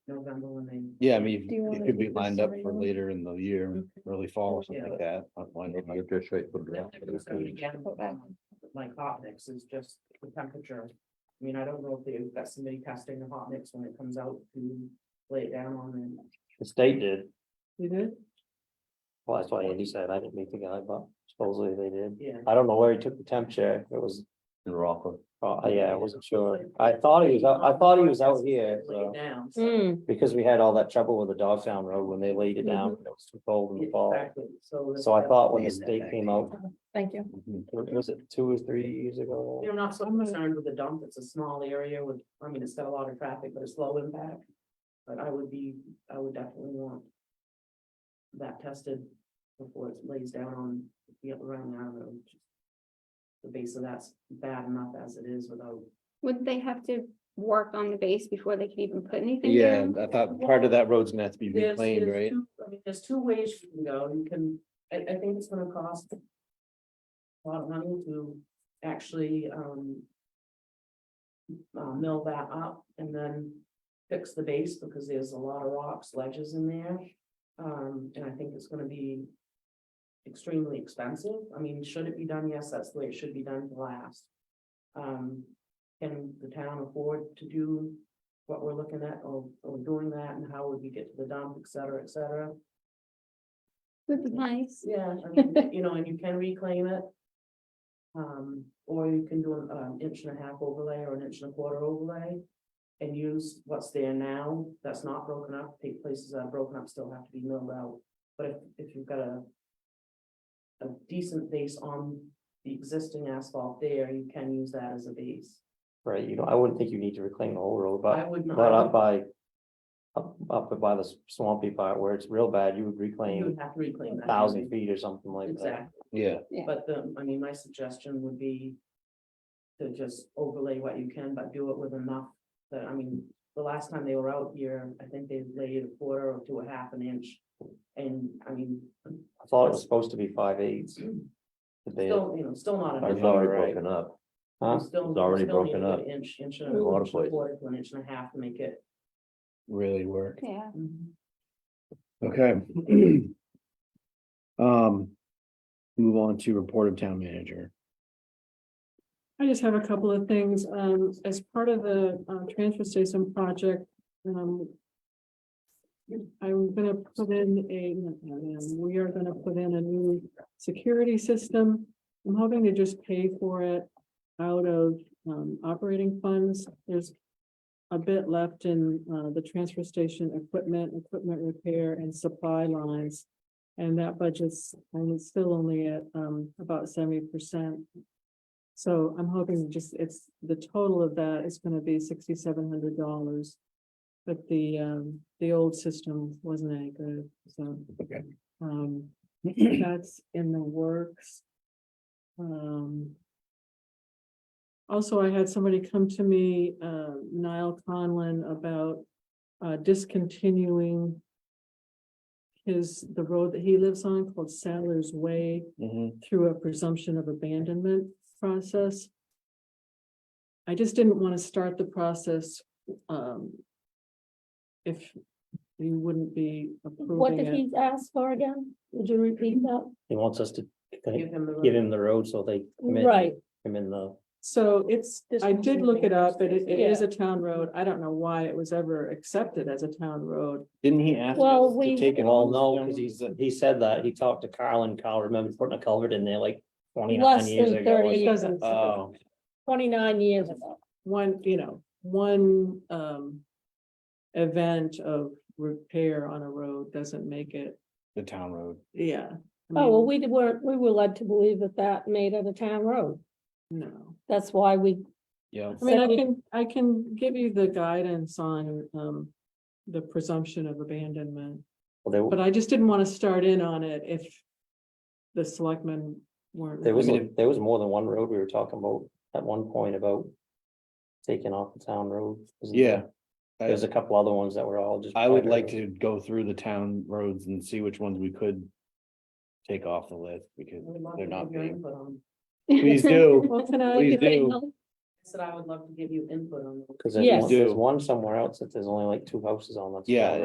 November when they. Yeah, I mean, Do you wanna it could be do the lined up for summer one? later in the year, early fall or something Yeah. like that. I don't mind if I- Again, Put back. Like hot mix is just the temperature. I mean, I don't know if they've got somebody testing the hot mix when it comes out to lay it down on them. The state did, You did? well, that's why Andy said, I didn't meet the guy, but supposedly they did. Yeah. I don't know where he took the temperature, it was, in Rockland. oh, yeah, I wasn't sure, I thought he was out, I thought he was out here, Lay it so. down. so- Hmm. Mm, Because we had all that trouble with the Dogtown Road when they laid it down, it was too cold in the fall, Mm-hmm. Exactly, so. so I thought when the state came out, thank you. Mhm. was it two or three years ago? You're not so concerned with the dump, it's a small area with, I mean, it's got a lot of traffic, but it's low impact. But I would be, I would definitely want. That tested before it lays down on, the around the road. The base of that's bad enough as it is without, Would they have to work on the base before they could even put anything? Yeah, down? and I thought part of that road's gonna have to be there's, reclaimed, there's right? two, I mean, there's two ways you can go, you can, I, I think it's gonna cost. A lot of money to actually, um. Uh, mill that up and then fix the base, because there's a lot of rocks, ledges in there. Um, and I think it's gonna be. Extremely expensive, I mean, should it be done? Yes, that's the way it should be done to last. Um, can the town afford to do what we're looking at or, or doing that and how would we get to the dump, et cetera, et cetera. Would be nice. Yeah, I mean, you know, and you can reclaim it. Um, or you can do an um, inch and a half overlay or an inch and a quarter overlay. And use what's there now that's not broken up, the places that are broken up still have to be milled out, but if, if you've got a. A decent base on the existing asphalt there, you can use that as a base. Right, you know, I wouldn't think you need to reclaim the whole road, I but, would not. but up by. Up, up by the swampy part where it's real bad, you would You reclaim would have to reclaim that. thousand feet or something like that. Mm-hmm. Exactly. Yeah, But the, I mean, my suggestion would be. To just overlay what you can, but do it with enough, that, I mean, the last time they were out here, I think they laid a quarter to a half an inch. And I mean, I thought it was supposed to be five eighths. But they- still, you know, still not I enough. thought it was broken up. Huh? You still- It's already you still need broken a good up Inch, inch and in a a lot of inch and a places. quarter, to an inch and a half to make it. Really work. Yeah. Mhm. Okay. Um, move on to report of town manager. I just have a couple of things, um, as part of the, uh, transfer station project, um. I'm gonna put in a, not I am, we are gonna put in a new security system. I'm hoping to just pay for it out of, um, operating funds, there's. A bit left in, uh, the transfer station equipment, equipment repair and supply lines. And that budget's, and it's still only at, um, about seventy percent. So I'm hoping just it's, the total of that is gonna be sixty-seven hundred dollars. But the um, the old system wasn't any good, so. Okay. Um, that's in the works. Um. Also, I had somebody come to me, uh, Niall Conlon, about uh discontinuing. His, the road that he lives on called Sadler's Way Mhm. through a presumption of abandonment process. I just didn't want to start the process, um. If you wouldn't be What did approving it. he ask for again? Would you repeat that? He wants us to Give him the. give him the road so they. come in- Right, Come in the, So it's, This I one's did in look it up, but it it is Yeah. a town road. I don't know why it was ever accepted as a town road. Didn't he ask Well, us to we- take it well, all? no, because he's, he said that, he talked to Carl and Carl remembered putting a culvert in there like twenty-nine Less years than ago. 30 It doesn't, Oh, twenty-nine years ago. one, you know, one um. Event of repair on a road doesn't make it, the town road. yeah. I Oh, well, mean, we were, we were led to believe that that made it a town road. No. That's why we Yeah. I mean, I So- can, I can give you the guidance on, um, the presumption of abandonment, Well, there- but uh, I just didn't want to start in on it if the selectmen weren't. There was, I a- there was more than one road we were talking about at one point about taking off the town road. wasn't there? Yeah. I- There's a couple other ones that were all just. I would private like roads. to go through the town roads and see which ones we could take off the list because We'd love to they're not give your being, input on please do. Well, can I, Please do. said I would love to give you input on. those. Cause there's Yes. one- there's Do. one somewhere else that there's only like two houses on. that's Yeah, got it.